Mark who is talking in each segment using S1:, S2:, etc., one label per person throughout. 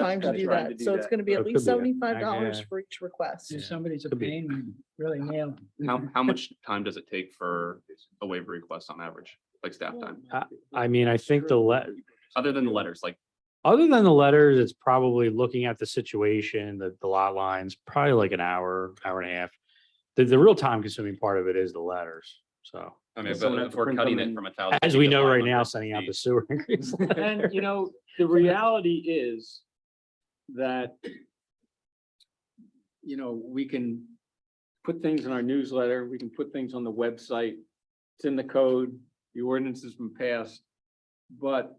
S1: time to
S2: Got
S1: do
S2: time to
S1: that.
S2: do
S1: So it's
S2: that.
S1: gonna be
S3: Oh,
S1: at
S3: it
S1: least
S3: could be
S1: seventy-five dollars
S3: Yeah.
S1: for each request.
S4: If somebody's a
S3: Could be.
S4: pain, we really nail them.
S5: How, how much time does it take for a waiver request on average, like staff time?
S3: I mean, I think the let,
S5: Other than the letters, like,
S3: other than the letters, it's probably looking at the situation, the, the lot lines, probably like an hour, hour and a half. The, the real time consuming part of it is the letters. So
S5: I mean,
S2: Does someone
S5: but
S2: have
S5: if
S2: to
S5: we're
S2: print
S5: cutting
S2: them
S5: it
S2: and-
S5: from a thousand.
S3: as
S5: feet
S3: we
S5: to
S3: know right now,
S5: 500
S3: sending out the
S5: feet,
S3: sewer increase.
S2: And you know, the reality is that you know, we can put things in our newsletter, we can put things on the website. It's in the code, the ordinance has been passed. But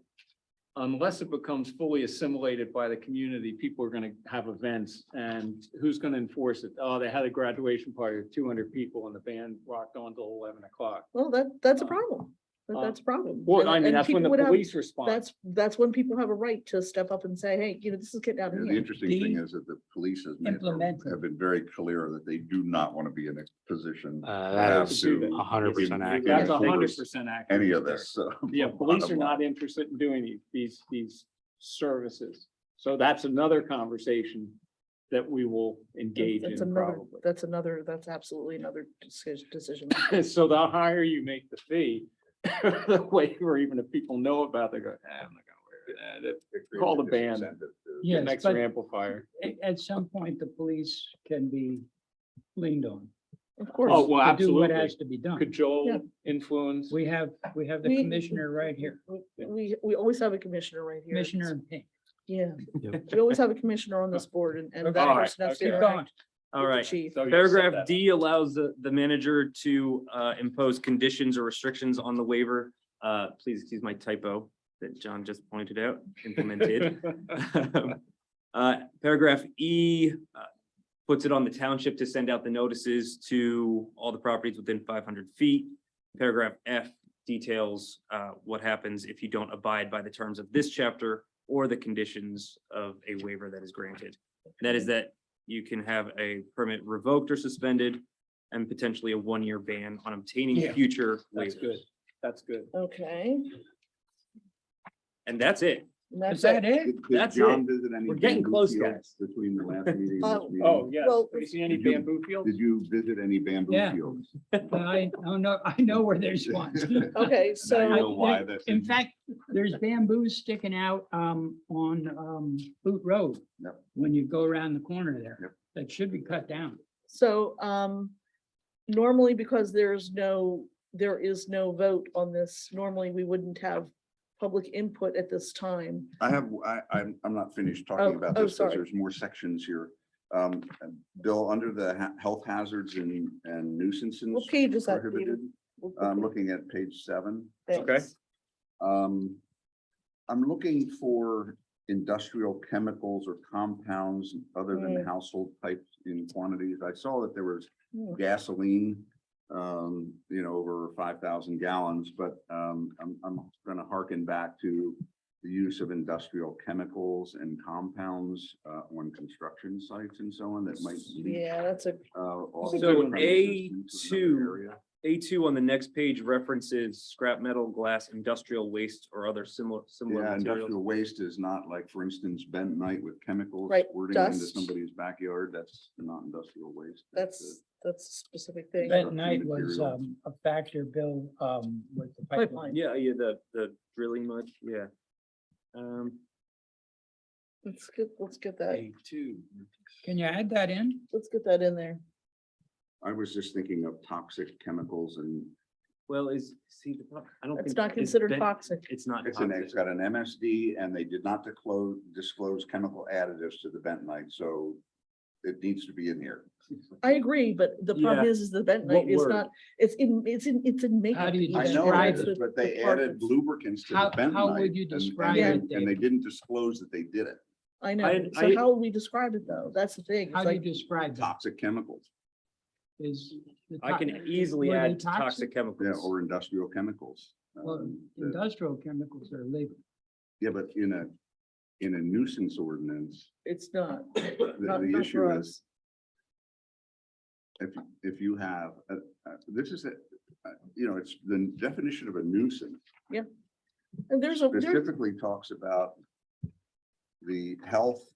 S2: unless it becomes fully assimilated by the community, people are gonna have events and who's gonna enforce it? Oh, they had a graduation party of two hundred people and the band rocked on till eleven o'clock.
S1: Well, that, that's a
S2: Uh,
S1: problem. That-
S2: uh,
S1: That's a problem.
S2: Well,
S1: And-
S2: I mean,
S1: and
S2: that's
S1: people
S2: when the
S1: would have-
S2: police respond.
S1: That's, that's when people have a right to step up and say, hey, you know, this is getting out of
S6: And the
S1: hand.
S6: interesting thing
S4: the
S6: is that the police has made,
S4: implementing.
S6: have been very clear that they do not want to be in a position to
S3: Uh, that
S6: have
S3: is
S2: do that.
S6: to
S3: a hundred percent
S6: That's
S3: accurate.
S2: That's
S6: Yeah.
S2: hundred percent accurate.
S6: any of this. so-
S2: Yeah, police are not interested in doing these, these, these services. So that's another conversation that we will engage
S1: That's
S2: in
S1: another,
S2: probably.
S1: that's another, that's absolutely another decision, decision.
S2: So the higher you make the fee, the waiver, even if people know about, it, they go, "Ah, I'm not gonna wear that. Call the band.
S4: Yes,
S2: That makes
S4: but-
S2: an amplifier.
S4: At, at some point, the police can be leaned on.
S1: Of
S2: Oh,
S1: course,
S4: to
S2: well,
S4: do What has
S2: absolutely.
S4: to be done.
S2: Could
S1: Yeah.
S2: Joel influence?
S4: We have, we have the
S1: We-
S4: commissioner right here,
S1: we, we always have a commissioner right here.
S4: Commissioner in pink.
S1: Yeah,
S3: Yep.
S1: we always have a commissioner on this board and, and that
S2: All right,
S1: person has to
S2: okay.
S4: Keep
S1: interact
S4: going.
S7: All
S1: with the
S7: right.
S1: Chief.
S2: So you set
S7: Paragraph
S2: that
S7: D allows the, the manager to uh, impose conditions or restrictions on the waiver. Uh, Please excuse my typo that John just pointed out, implemented. Uh, Paragraph E uh, puts it on the township to send out the notices to all the properties within five hundred feet. Paragraph F details uh, what happens if you don't abide by the terms of this chapter or the conditions of a waiver that is granted. That is that you can have a permit revoked or suspended and potentially a one-year ban on obtaining
S4: Yeah,
S7: future
S2: That's
S7: waivers.
S2: good. That's good.
S1: Okay.
S7: And that's it.
S1: and
S4: Is
S1: that's it.
S4: that it?
S7: That's it.
S6: We're
S7: getting close, guys.
S6: Between the last meeting and
S1: Oh.
S6: this meeting.
S2: Oh, yes.
S1: Well,
S2: Have you seen any
S6: did you-
S2: bamboo fields?
S6: Did you visit any bamboo
S4: Yeah.
S6: fields?
S4: I, oh, no, I know where there's one.
S1: Okay,
S6: I
S1: so,
S6: know why
S4: There-
S6: that's
S4: In
S6: in-
S4: fact, there's bamboos sticking out um on um Boot Road.
S6: Yep.
S4: When you go around the corner
S6: Yep.
S4: there, that should be cut down.
S1: so, um, normally because there's no, there is no vote on this, normally we wouldn't have public input at this time.
S6: I have, I, I'm, I'm not finished
S1: Oh,
S6: talking about
S1: oh,
S6: this, because
S1: sorry.
S6: there's more sections here. Um, Bill, under the ha- health hazards and, and nuisances
S1: What page is that?
S6: prohibited, Um,
S1: Peter?
S6: I'm looking at page seven.
S7: Okay.
S1: Thanks.
S6: Um, I'm looking for industrial chemicals or compounds other
S1: Mm.
S6: than household types in quantities. I saw that there was
S1: Hmm.
S6: gasoline, um, you know, over five thousand gallons, but, um, I'm, I'm gonna harken back to the use of industrial chemicals and compounds, uh, on construction sites and so on that might leak,
S1: Yeah, that's a,
S6: uh, off
S7: So
S6: premises into
S7: A2
S6: another area.
S7: A two on the next page references scrap metal, glass, industrial waste, or other similar, similar
S6: Yeah,
S7: materials.
S6: industrial waste is not like, for instance, bentonite with chemicals
S1: Right,
S6: squirting into
S1: dust.
S6: somebody's backyard. That's not industrial waste.
S1: that's, that's a specific thing.
S4: That night was
S6: materials.
S4: um a factor, Bill, um with the
S1: Pipeline.
S4: pipeline.
S7: Yeah, yeah, the, the drilling mud, yeah. Um,
S1: Let's get, let's get that,
S2: two.
S4: Can you add that in?
S1: let's get that in there.
S6: I was just thinking of toxic chemicals and
S7: well, is, see, the pro- I don't think.
S1: It's not
S7: is
S1: considered
S7: ben-
S1: toxic.
S7: It's not.
S6: it's an,
S7: toxic.
S6: it's got an MSD and they did not disclose, disclose chemical additives to the bentonite, so it needs to be in here.
S1: I agree, but the problem
S7: Yeah.
S1: is, is the bentonite
S7: What
S1: is
S7: word?
S1: not, it's in, it's in, it's in makeup.
S4: do you
S1: even.
S6: I
S4: Yeah,
S6: know,
S4: right.
S6: it
S1: It's
S6: is,
S1: with
S6: but
S1: the
S6: they added
S1: parts.
S6: lubricants to
S4: How-
S6: the bentonite.
S4: how would you
S6: and- and
S4: describe
S6: they-
S4: it,
S6: And they
S4: Dave?
S6: didn't disclose that they did it.
S1: I know,
S7: I-
S1: so
S7: I-
S1: how will we describe it though? That's the thing.
S4: How
S1: It's
S4: do you
S1: like,
S4: describe that?
S6: Toxic chemicals,
S4: Is. the
S7: I
S4: to-
S7: can easily
S4: were they
S7: add toxic chemicals.
S6: yeah, or industrial chemicals.
S4: Well,
S6: um, that-
S4: Industrial chemicals are legal.
S6: Yeah, but in a, in a nuisance ordinance,
S1: it's not,
S6: the,
S1: not
S6: the
S1: not
S6: issue
S1: for
S6: is
S1: us.
S6: if, if you have, uh, uh, this is, a uh, you know, it's the definition of a nuisance
S1: And there's a, there-
S6: specifically talks about the health